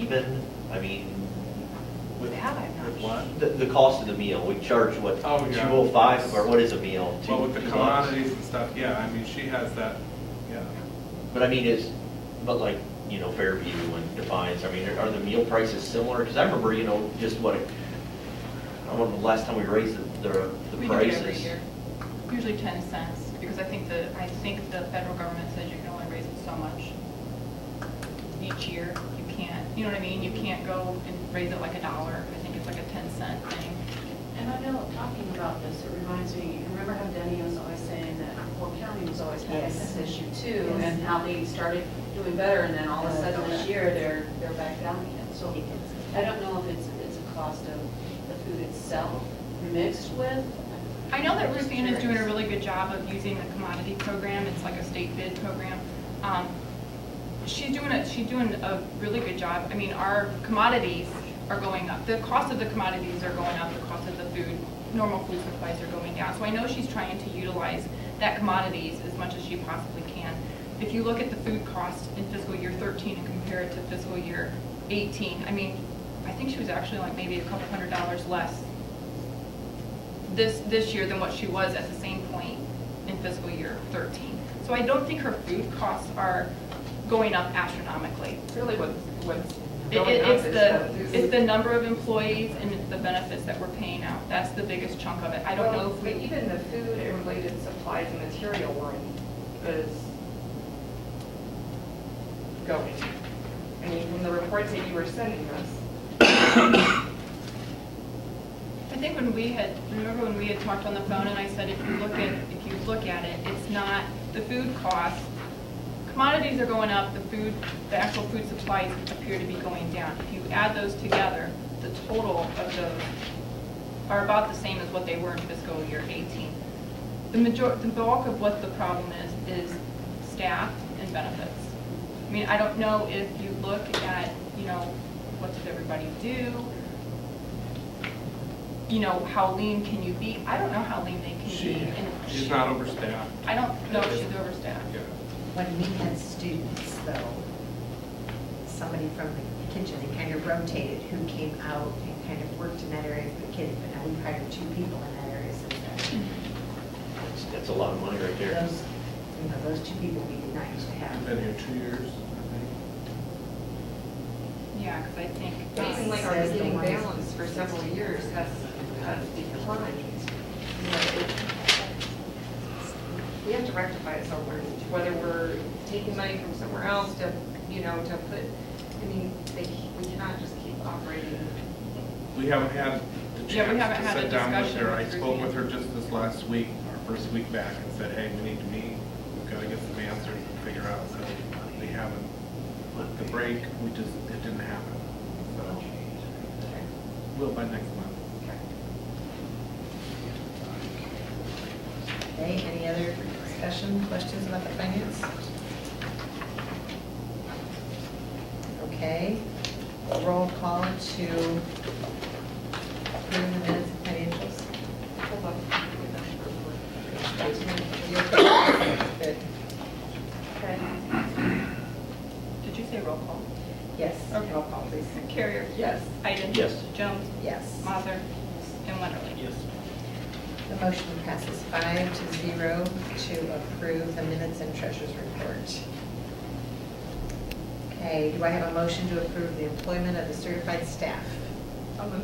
even, I mean, with, That I'm not with sure. the, the cost of the meal, we charge what, two Oh, yeah. oh five, or what is a meal? Well, with Two- the two bucks? commodities and stuff, yeah, I mean, she has that, yeah. But I mean, is, but like, you know, Fairview and Defiance, I mean, are the meal prices similar? Because I remember, you know, just what, it- I don't know, the last time we raised the, the the We do it every prices. year, usually 10 cents, because I think the, I think the federal government says you can only raise it so much each year. You can't, you know what I mean? You can't go and raise it like a dollar. I think it's like a 10 cent thing. And I know, talking about this, it reminds me, you remember how Denny was always saying that Fort County was always having this issue too? And how they started doing better and then all of a sudden this year, they're, they're back down again. So I don't know if it's, it's a cost of the food itself mixed with. I know that Ruthann is doing a really good job of using the commodity program, it's like a state bid program. Um, She's doing a, she's doing a really good job, I mean, our commodities are going up, the cost of the commodities are going up, the cost of the food, normal food supplies are going down, so I know she's trying to utilize that commodities as much as she possibly can. If you look at the food cost in fiscal year thirteen and compare it to fiscal year eighteen, I mean, I think she was actually like maybe a couple hundred dollars less this, this year than what she was at the same point in fiscal year 13. So I don't think her food costs are going up astronomically. Really what, what's It- going it- up It's is the, that this it's is- the number of employees and it's the benefits that we're paying out. That's the biggest chunk of it. I don't know Well, if but we, Even the food and related supplies and material were in, is going. I mean, from the reports that you were sending us, I think when we had, remember when we had talked on the phone and I said, if you look at, if you look at it, it's not the food costs. Commodities are going up, the food, the actual food supplies appear to be going down. If you add those together, the total of those are about the same as what they were in fiscal year 18. The major, the bulk of what the problem is, is staff and benefits. I mean, I don't know if you look at, you know, what did everybody do? You know, how lean can you be? I don't know how lean they can be. She, and she's she- not overstaffed, I don't know if she's overstaffed. yeah. when we had students, though, somebody from the kitchen, they kind of rotated who came out and kind of worked in that area for the kids, but now we hired two people in that area, so that That's- That's a lot of money right there. those, you know, those two people we did not used to I've have. been here two years, I Yeah, because I think. it seemed like our Says the beginning ones- balance for several years has, has declined. You know, it- We have to rectify it somewhere, whether we're taking money from somewhere else to, you know, to put, I mean, they, we cannot just keep operating think. We haven't had the Yeah, we haven't chance had to a sit down with discussion her. I with spoke Ruthie. with her just this last week, our first week back, and said, hey, we need to meet. We've got to get some answers and figure out, so we haven't, with the break, we just, it didn't happen. So, will by next month. Okay, any other discussion, questions about the finance? Okay, roll call to approve the minutes of financials. You okay? Good. Did you say roll call? Yes, Okay. roll call, please. Carrier. Yes. Iden. Yes. Jones. Yes. Mazer. And Wonderly. Yes. The motion passes five to zero to approve the minutes and treasurer's report. Okay, do I have a motion to approve the employment of the certified staff? Okay,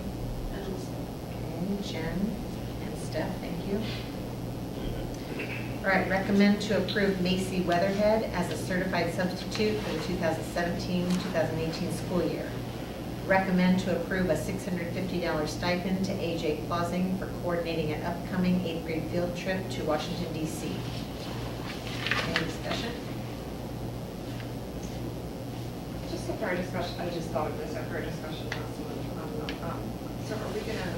Jen and Steph, thank you. All right, recommend to approve Macy Weatherhead as a certified substitute for the 2017-2018 school year. Recommend to approve a $650 stipend to AJ Clausing for coordinating an upcoming eighth grade field trip to Washington DC. Any discussion? Just after our discussion, I just thought of this after our discussion last month. um, um, So are we gonna,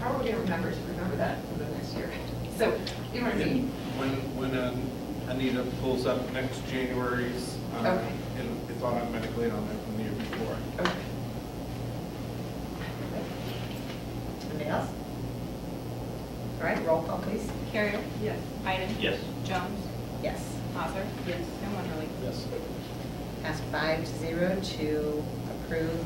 how are we gonna remember to remember that for the next year? So, you know what I And mean? When, when um, Anita pulls up next January's, um, Okay. it'll- it's automatically on there from the year before. Okay. Anybody else? All right, roll call, please. Carrier. Yes. Iden. Yes. Jones. Yes. Mazer. Yes. And Wonderly. Yes. Passed five to zero to approve